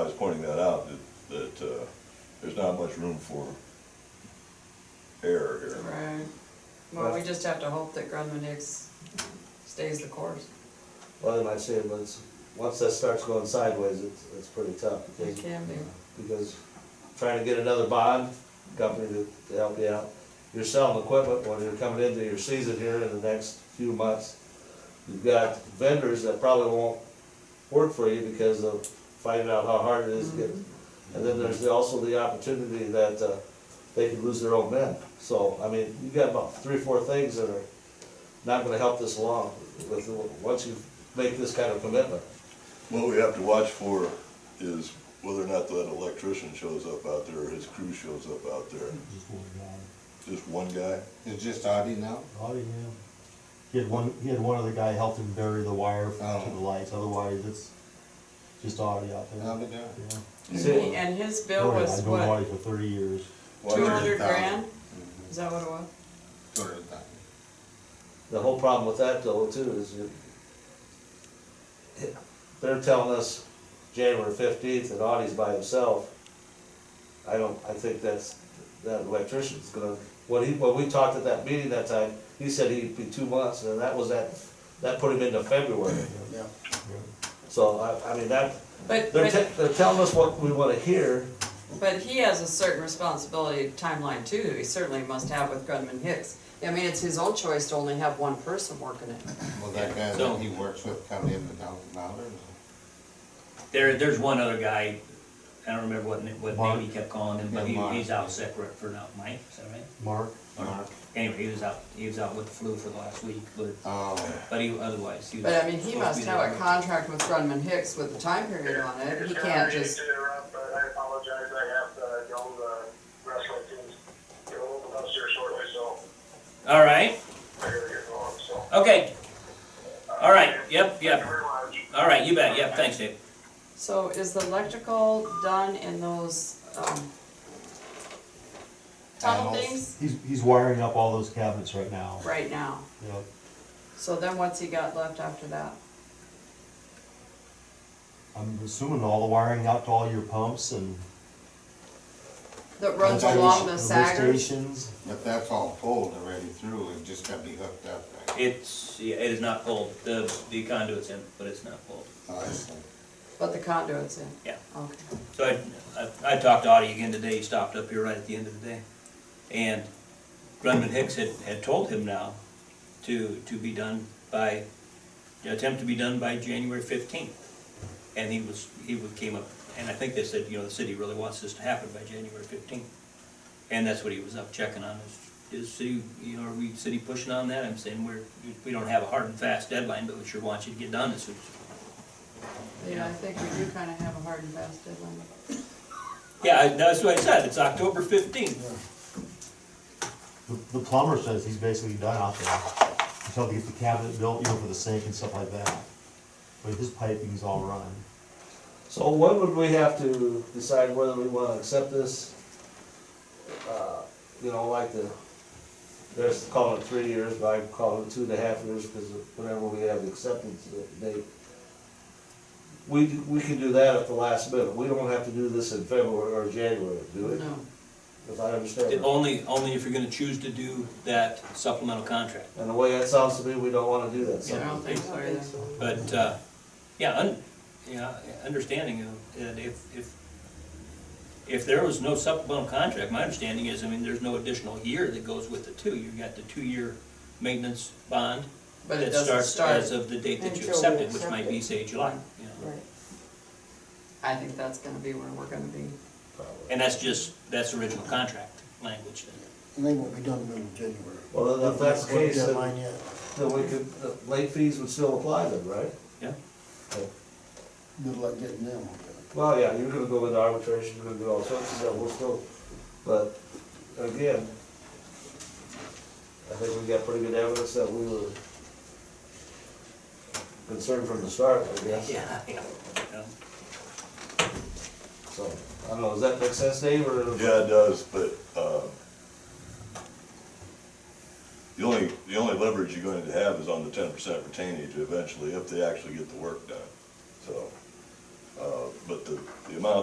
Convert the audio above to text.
uh, there's not much room for error here. Right. Well, we just have to hope that Grundman Hicks stays the course. Well, then I say, once, once that starts going sideways, it's, it's pretty tough, It because, can be. because trying to get another bond company to, to help you out, you're selling equipment when you're coming into your season here in the next few months. You've got vendors that probably won't work for you because of finding out how hard it is to get. And then there's also the opportunity that, uh, they could lose their own men. So, I mean, you've got about three, or four things that are not gonna help this along with, once you make this kind of commitment. What we have to watch for is whether or not that electrician shows up out there, or his crew shows up out there. Just one guy. Just one guy? It's just Audi now? Oh, yeah. He had one, he had one other guy help him bury the wire Oh. to the lights, otherwise it's just Audi out there. Now they got Yeah. See, And his bill Oh, yeah, was I've known what, Audi for thirty years. two hundred 100,000. grand? Mm-hmm. Is that what it was? two hundred thousand. The whole problem with that though too is you, they're telling us January fifteenth and Audie's by himself. I don't, I think that's, that electrician's gonna, when he, when we talked at that meeting that time, he said he'd be two months and that was that, that put him into February. Yeah. So I, I mean, that, But, they're, but, te- they're telling us what we wanna hear. but he has a certain responsibility timeline too, that he certainly must have with Grundman Hicks. I mean, it's his own choice to only have one person working it. Well, that guy So- that he works with come in the thousand dollars. There, there's one other guy, I don't remember what, na- what Mark. name he kept calling him, but Yeah, he, Mark. he's out sick right for now, Mike, is that right? Mark, Or- Mark. Anyway, he was out, he was out with the flu for the last week, but, Oh, but he, otherwise, he was. But I mean, he supposed to must be there. have a contract with Grundman Hicks with the time period on it. He can't just, Sorry to interrupt, but I apologize. I have to go to the uh, wrestling team's, go to the house here shortly, so All right, I gotta get going, so. okay, all right, yep, Thank you yep, very much. all right, you bet, yep, thanks, Dave. so is the electrical done in those, um, tunnel Panels. things he's, he's wiring up all those cabinets right now. right now? Yep. So then what's he got left after that? I'm assuming all the wiring out to all your pumps and. That runs Sometimes along the lift Sagers? Stations. but that's all pulled already through, it just gotta be hooked up, right? It's, yeah, it is not pulled, the, the conduit's in, but it's not pulled. Oh, I see. But the conduit's in? Yeah. Okay. So I, I, I talked to Audie again today, he stopped up here right at the end of the day. And Grundman Hicks had, had told him now to, to be done by, the attempt to be done by January fifteenth. And he was, he would- came up, and I think they said, you know, the city really wants this to happen by January fifteenth. And that's what he was up checking on, is, is city, you know, are we city pushing on that? I'm saying we're, we don't have a hard and fast deadline, but we sure want you to get done as soon as. Yeah, I think we do kind of have a hard and fast deadline. Yeah, I- that's what I said, it's October fifteenth. The, the plumber says he's basically done out there. Until he gets the cabinet built, you know, for the sink and stuff like that. But his piping's all run. So when would we have to decide whether we wanna accept this? Uh, You know, like the, they're calling it three years, but I'm calling it two and a half years, because whenever we have the acceptance date. We, we can do that at the last minute, we don't have to do this in February or January, do we? No. If I understand. It right. Only, only if you're gonna choose to do that supplemental contract. And the way that sounds to me, we don't wanna do that, I so, Yeah. don't think so either. But, uh, yeah, un, yeah, understanding of, that if, if, if there was no supplemental contract, my understanding is, I mean, there's no additional year that goes with the two. You've got the two-year maintenance bond But it that doesn't starts as start. of the date that until you we accept it, which accept might be, say, July, you know. Right. I think that's gonna be where we're gonna be. And that's just, that's original contract language. And they won't be done until January. Well, then if that's the case, then- Deadline yet. then we could, the late fees would still apply then, right? Yeah. Good luck getting them. Well, yeah, you're gonna go into arbitration, you're gonna do all sorts of stuff, we'll still, but again, I think we got pretty good evidence that we were concerned from the start, I guess, Yeah, yeah. yeah. so, I don't know, does that make sense, Dave, or? Yeah, it does, but, uh, the only, the only leverage you're going to have is on the ten percent retainage eventually, if they actually get the work done. So, uh, but the, the amount